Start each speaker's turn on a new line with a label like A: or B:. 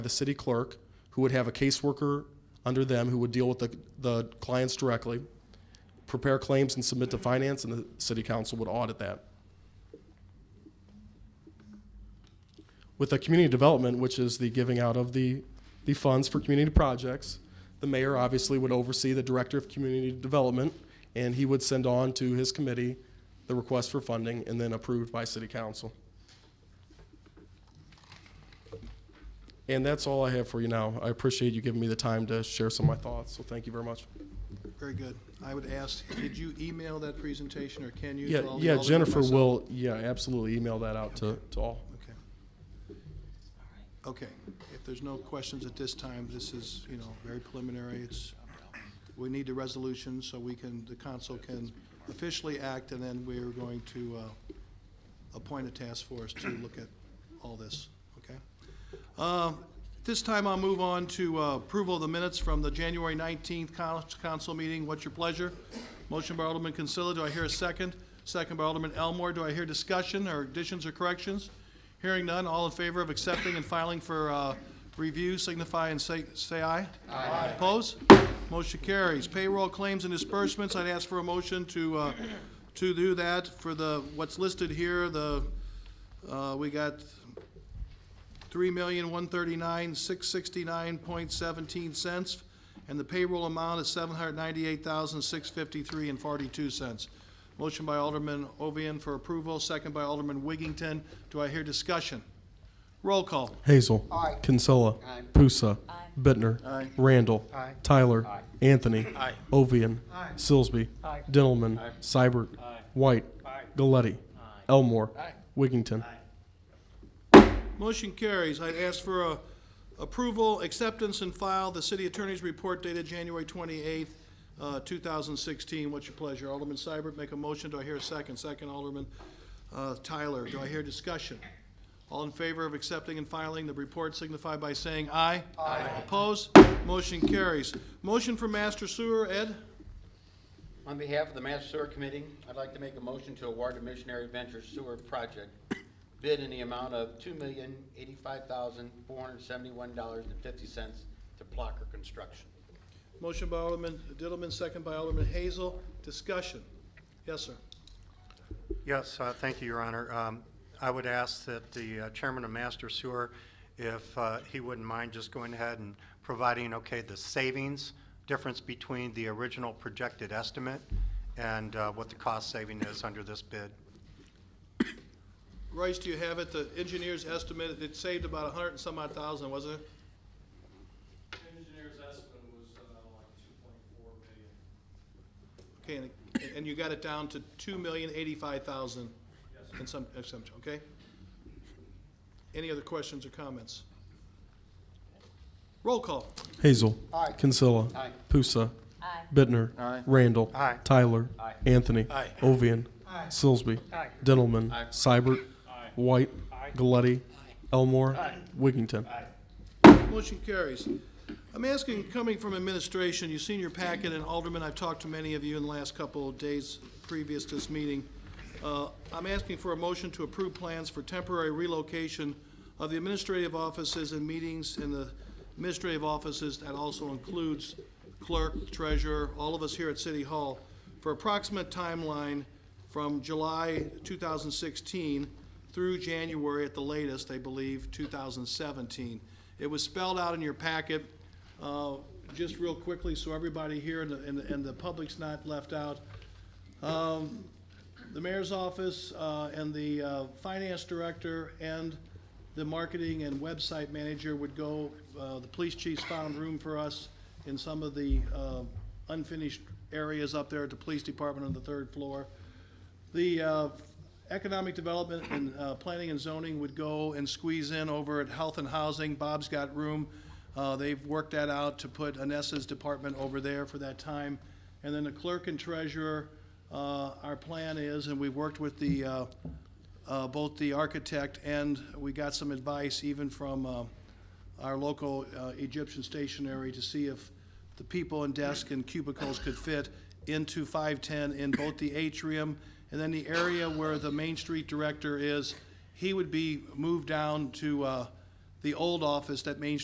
A: the city clerk, who would have a caseworker under them who would deal with the, the clients directly, prepare claims and submit to finance, and the city council would audit that. With the community development, which is the giving out of the, the funds for community projects, the mayor obviously would oversee the director of community development, and he would send on to his committee the request for funding and then approved by city council. And that's all I have for you now. I appreciate you giving me the time to share some of my thoughts, so thank you very much.
B: Very good. I would ask, did you email that presentation, or can you?
A: Yeah,
B: to all the
A: yeah,
B: aldermen
A: Jennifer
B: myself?
A: will, yeah, absolutely email that out to, to all.
B: Okay. Okay, if there's no questions at this time, this is, you know, very preliminary. It's, we need the resolution so we can, the council can officially act, and then we're going to uh, appoint a task force to look at all this, okay? Uh, At This time, I'll move on to uh, approval of the minutes from the January 19th coun- council meeting. What's your pleasure? Motion by Alderman Consilla, do I hear a second? Second by Alderman Elmore, do I hear discussion or additions or corrections? Hearing none, all in favor of accepting and filing for uh, review signify and say, say aye. Aye. Oppose? Motion carries. Payroll claims and disbursements, I'd ask for a motion to, uh, to do that for the, what's listed here, the, uh, we got three million, one thirty-nine, six sixty-nine point seventeen cents, and the payroll amount is seven hundred ninety-eight thousand, six fifty-three and forty-two cents. Motion by Alderman Ovian for approval, second by Alderman Wiggington. Do I hear discussion? Roll call.
A: Hazel. Aye. Kinsella. Pusa. Bittner. Randall. Tyler. Anthony. Ovian. Silsby. Dintelman. Seibert. White. Galletti. Elmore. Wigington.
B: Motion carries. I'd ask for a approval, acceptance, and file the city attorney's report dated January twenty-eighth, uh, two thousand sixteen. What's your pleasure? Alderman Seibert, make a motion. Do I hear a second? Second, Alderman, uh, Tyler. Do I hear discussion? All in favor of accepting and filing the report signify by saying aye. Aye. Opposed? Motion carries. Motion for master sewer, Ed?
C: On behalf of the Master Sewer Committee, I'd like to make a motion to award the Missionary Ventures Sewer Project bid in the amount of two million eighty-five thousand four hundred seventy-one dollars and fifty cents to Plucker Construction.
B: Motion by Alderman Diddleman, second by Alderman Hazel. Discussion? Yes, sir.
D: Yes, uh, thank you, Your Honor. Um, I would ask that the uh, chairman of Master Sewer, if uh, he wouldn't mind just going ahead and providing, okay, the savings difference between the original projected estimate and uh, what the cost saving is under this bid.
B: Royce, do you have it? The engineers estimated it saved about a hundred and some odd thousand, wasn't it?
E: Engineer's estimate was uh, like two point four million.
B: Okay, and, and you got it down to two million eighty-five thousand in some, in some, okay? Any other questions or comments? Roll call.
A: Hazel. Kinsella. Pusa. Bittner. Randall.
D: Aye.
A: Tyler. Anthony. Ovian. Silsby. Dintelman. Seibert. White. Galletti. Elmore. Wigington.
B: Motion carries. I'm asking, coming from administration, you've seen your packet, and Alderman, I've talked to many of you in the last couple of days previous to this meeting. Uh, I'm asking for a motion to approve plans for temporary relocation of the administrative offices and meetings in the administrative offices. That also includes clerk, treasurer, all of us here at City Hall, for approximate timeline from July 2016 through January at the latest, I believe, 2017. It was spelled out in your packet, uh, just real quickly, so everybody here and the, and the- and the public's not left out. Um, The mayor's office uh, and the uh, finance director and the marketing and website manager would go, uh, the police chief's found room for us in some of the uh, unfinished areas up there at the police department on the third floor. The uh, economic development and uh, planning and zoning would go and squeeze in over at health and housing. Bob's got room. Uh, They've worked that out to put Anessa's department over there for that time. And then the clerk and treasurer, uh, our plan is, and we've worked with the, uh, uh, both the architect and we got some advice even from uh, our local uh, Egyptian stationery to see if the people and desk and cubicles could fit into 510 in both the atrium and then the area where the Main Street director is. He would be moved down to uh, the old office that Main